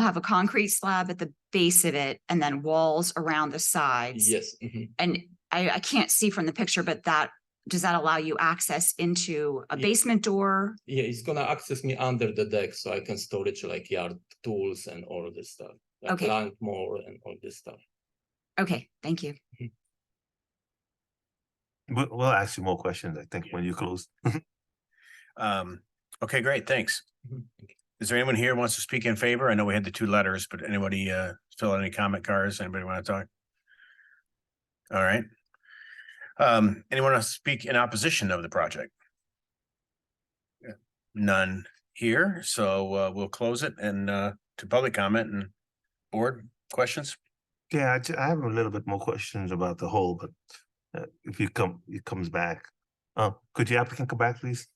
have a concrete slab at the base of it and then walls around the sides. Yes, mhm. And I, I can't see from the picture, but that, does that allow you access into a Ye- basement door? yeah, it's gonna access me under the deck, so I can storage like yard tools and all this stuff. Like Okay. lawnmower and all this stuff. Okay, thank you. We'll, we'll ask you more questions, I think, when you close. Um, okay, great, thanks. Mhm. Is there anyone here who wants to speak in favor? I know we had the two letters, but anybody uh fill out any comment cards? Anybody want to talk? All right. Um, anyone else speak in opposition of the project? Yeah, None here, so uh we'll close it and uh to public comment and board questions? Yeah, I, ju- I have a little bit more questions about the whole, but uh, if you come, it comes back. Uh, could the applicant come back, please?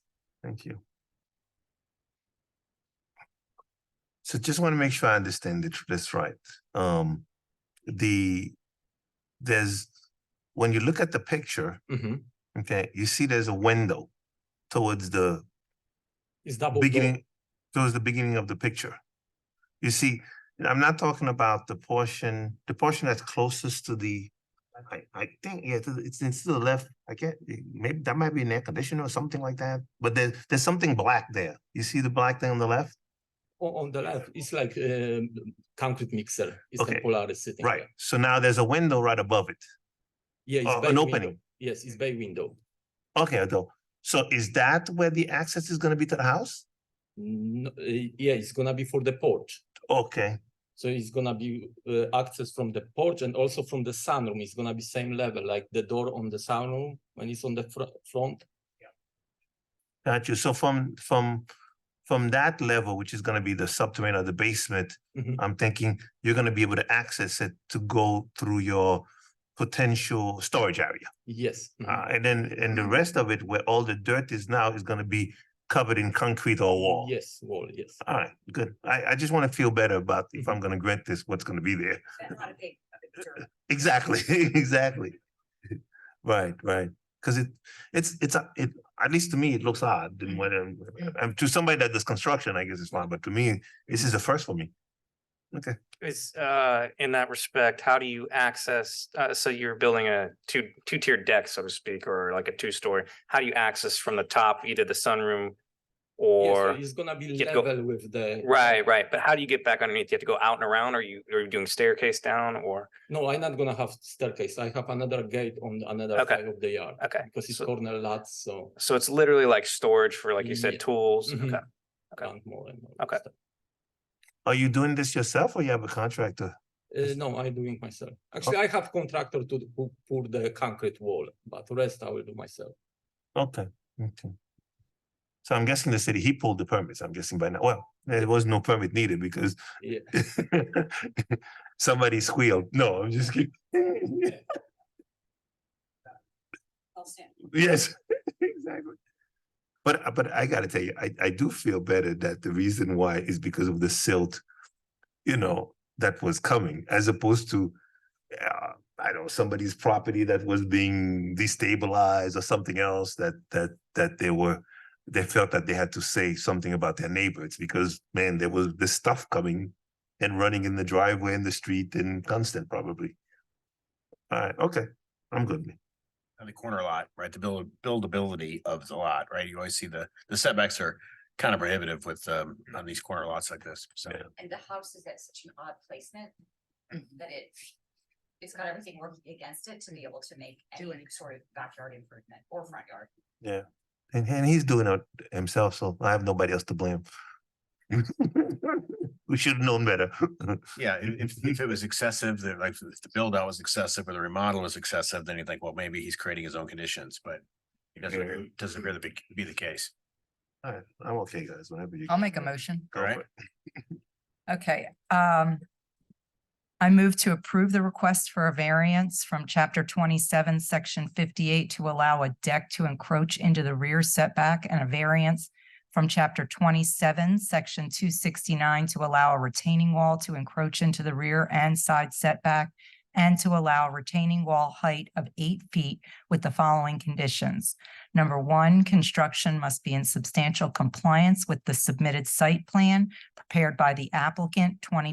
Thank you. So just want to make sure I understand it, this right. Um, the, there's, when you look at the picture, Mhm. okay, you see there's a window towards the It's double. door. beginning towards the beginning of the picture. You see, and I'm not talking about the portion, the portion that's closest to the, I, I think, yeah, to the- it's, it's to the left. I can't, maybe that might be an air conditioner or something like that, but there, there's something black there. You see the black thing on the left? O- On the left, it's like um concrete mixer. It's a Okay. Polaris sitting. Right, there. so now there's a window right above it. Yeah, it's Uh, an bay window. opening. Yes, it's bay window. Okay, though, so is that where the access is gonna be to the house? No, uh, yeah, it's gonna be for the porch. Okay, So it's gonna be uh, access from the porch and also from the sunroom. It's gonna be same level, like the door on the sunroom when it's on the fr- front. got you. So from, from, from that level, which is gonna be the subterranean or the basement, Mhm. I'm thinking you're gonna be able to access it to go through your potential storage area. Yes. mhm. Uh, and then, and the rest of it where all the dirt is now is gonna be covered in concrete or wall. Yes, wall. Yes. All right, good. I, I just wanna feel better about if I'm gonna grant this, what's gonna be there. Exactly, exactly. Right, right. Cause it, it's, it's, a- it, at least to me, it looks odd. And when, I'm- I'm- to somebody that does construction, I guess it's fine, but to me, this is the first for me. Is uh in that respect, how do you access, uh so you're building a two two tiered deck, so to speak, or like a two story? How do you access from the top, either the sunroom? Yeah, so Or, it's gonna be you have to go- level with the right, right, but how do you get back underneath? You have to go out and around, or you are you doing staircase down or, No, I'm not gonna have staircase. I have another gate on another Okay. side of the yard okay. because it's So- corner lot, so So it's literally like storage for, like you Yeah. said, tools. Mhm. Okay, Okay. and more and more Okay. stuff. Are you doing this yourself or you have a contractor? Uh, no, I'm doing myself. Actually, Oh. I have contractor to who pour the concrete wall, but rest I will do myself. Okay, okay. So I'm guessing the city, he pulled the permits, I'm guessing by now, well, there was no permit needed because Yeah. somebody squealed, no, I'm just kidding. Yes, exactly. But, I- but I gotta tell you, I, I do feel better that the reason why is because of the silt, you know, that was coming, as opposed to, uh, I don't know, somebody's property that was being destabilized or something else that, that, that they were, they felt that they had to say something about their neighbors, because man, there was this stuff coming and running in the driveway and the street and constant probably. All right, okay, I'm good. on the corner lot, right? The build, buildability of the lot, right? You always see the, the setbacks are kind of prohibitive with, um, on these corner lots like this, so. Yeah. And the house is at such an odd placement that it, it's got everything working against it to be able to make any sort of backyard improvement or front yard. And, and he's doing it himself, so I have nobody else to blame. we should have known better. Yeah, i- if, if it was excessive, that like, if the build out was excessive or the remodel was excessive, then you think, well, maybe he's creating his own conditions, but Yeah. it doesn't, doesn't really be, be the case. All right, I'm okay, guys. Whenever you. I'll make a motion. Go for Alright. it. Okay, um. I move to approve the request for a variance from chapter twenty-seven, section fifty-eight to allow a deck to encroach into the rear setback and a variance from chapter twenty-seven, section two sixty-nine to allow a retaining wall to encroach into the rear and side setback and to allow retaining wall height of eight feet with the following conditions. Number one, construction must be in substantial compliance with the submitted site plan prepared by the applicant, twenty